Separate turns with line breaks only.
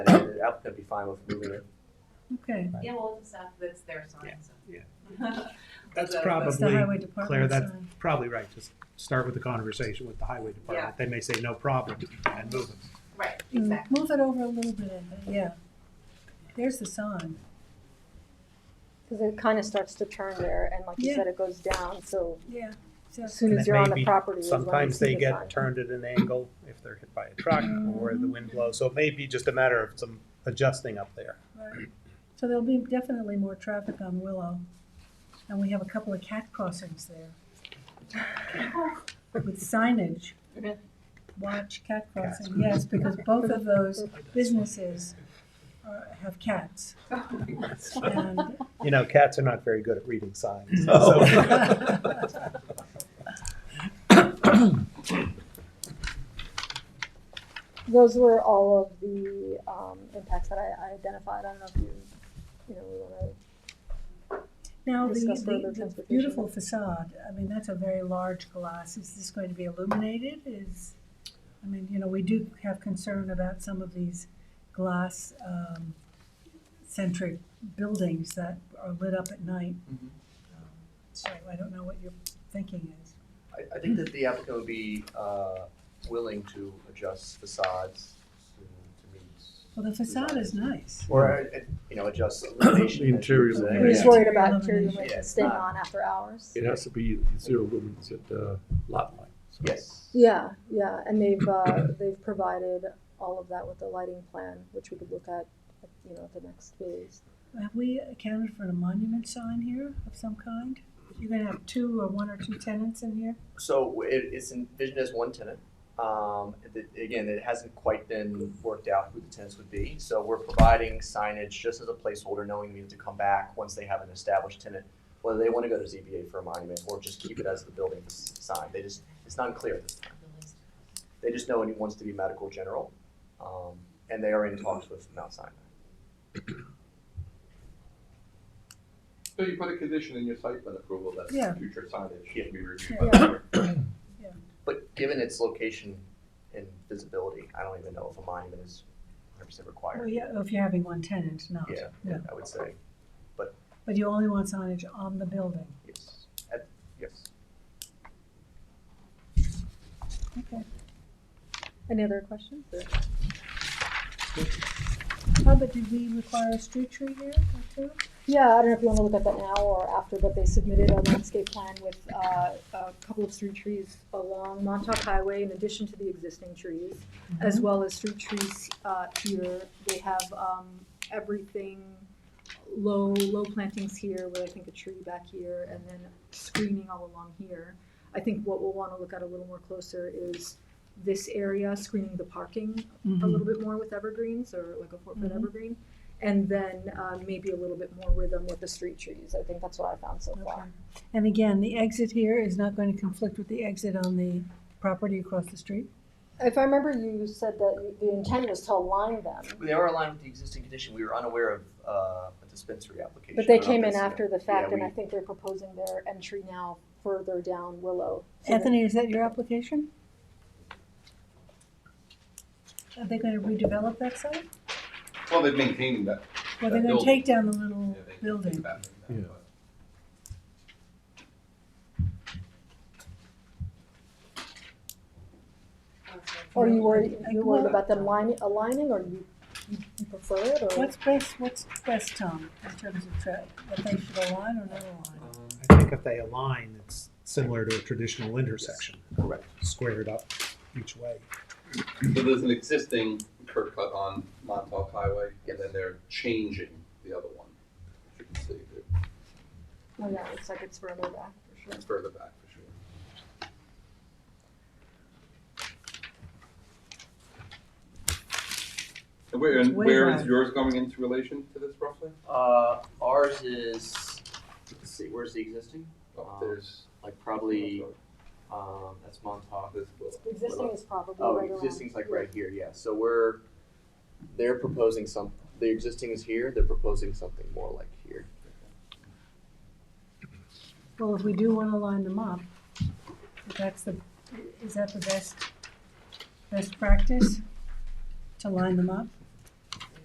and the applicant be fine with moving it.
Okay,
Yeah, well, it's after that's their sign, so.
Yeah,
That's
That's
the-
that's the
probably,
highway
Claire,
department
that's
sign.
probably right, just start with the conversation with the highway department, they may say no problem and move it.
Right,
Hmm.
Mm,
exactly.
Move it over a little bit, Ed, yeah. There's the sign.
Because it kind of starts to turn there, and like you
Yeah.
said, it goes down, so
Yeah. so-
as soon
And it
as you're
may
on the
be-
property is when you
Sometimes
see
they
the
get
sign.
turned at an angle if they're hit by a truck or the wind blows, so it may be just a matter of some adjusting up there.
right. So there'll be definitely more traffic on Willow, and we have a couple of cat crossings there. With signage,
Okay.
watch cat
Cats.
crossing, yes, because both of those businesses are- have cats. And
You know, cats are not very good at reading signs,
No.
so.
Those were all of the um, impacts that I, I identified. I don't know if you, you know, we want
Now, the,
Discuss further
the- the
transportation.
beautiful facade, I mean, that's a very large glass, is this going to be illuminated, is, I mean, you know, we do have concern about some of these glass, um, centric buildings that are lit up at night.
Mhm.
Um, So I don't know what your thinking is.
I, I think that the applicant would be, uh, willing to adjust facades to, to meet.
Well, the facade is nice.
Or, uh, you know, adjust illumination.
The
as you
interiors of
say.
the
to. We're just
Yeah.
worried about
Illumination.
illumination
Yeah.
staying on after hours.
It has to be zero lumens at the lot line. so-
Yes.
Yeah, yeah, and they've uh, they've provided all of that with the lighting plan, which we could look at, you know, at the next phase.
Have we accounted for a monument sign here of some kind? You're gonna have two or one or two tenants in here?
So it, it's envisioned as one tenant. Um, it- again, it hasn't quite been worked out who the tenants would be. So we're providing signage just as a placeholder, knowing we have to come back once they have an established tenant, whether they want to go to ZBA for a monument or just keep it as the building s- sign. They just, it's not clear at this time. They just know it wants to be medical general, um, and they are in talks with Mount Sinai.
So you put a condition in your site plan approval that
Yeah.
future signage can be reviewed
Yeah.
by the board.
But given its location and visibility, I don't even know if a monument is 100%
Well,
required.
yeah, if you're having one tenant,
Oh,
not,
Yeah,
no.
I would say
But you only want signage on the building.
yes. At, yes.
Okay.
Any other questions? or-
How about, did we require a street tree here or two?
Yeah, I don't know if you want to look at that now or after, but they submitted a landscape plan with uh, a couple of street trees along Montauk Highway in addition to the existing trees, as well as street trees uh, here. They have um, everything, low, low plantings here with I think a tree back here and then screening all along here. I think what we'll want to look at a little more closer is this area, screening the parking a little bit more with evergreens or like a four foot
Mhm.
evergreen. And then uh, maybe a little bit more rhythm with the street trees. I think that's what I found so
Okay.
far.
And again, the exit here is not going to conflict with the exit on the property across the street?
If I remember, you said that you- the intent was to align them,
They are aligned with the existing condition. We were unaware of uh, a dispensary application.
but they
I don't
came
know if
in
that's-
after the
uh,
fact,
Yeah,
and
we-
I think they're proposing their entry now further down Willow. So that-
Anthony, is that your application? Are they going to redevelop that site?
Well, they're maintaining that.
Well, they're going
That
to
building.
take down the
yeah,
little
they keep
building.
that,
Yeah.
but-
Or you worried,
I-
you worried about them lining, aligning, or you you- you prefer it, or?
What's best, what's best, Tom, in terms of tra- that they should align or not align?
I think if they align, it's similar to a traditional intersection.
Correct.
Squared up each way.
So there's an existing curb cut on Montauk Highway,
Yes.
and then they're changing the other one. If you can see, it,
Oh, yeah, it looks like it's further back, for sure.
it's further back for sure. And where, and
Way
where is
back.
yours going into relation to this roughly?
Uh, Ours is, let's see, where's the existing?
Oh,
Um,
there's,
Like probably, um, that's Montauk.
this little.
Existing is probably
Oh,
right around.
existing's like
here.
right here, yeah. So we're, they're proposing some, the existing is here, they're proposing something more like here.
Well, if we do want to line them up, if that's the, is that the best, best practice? To line them up?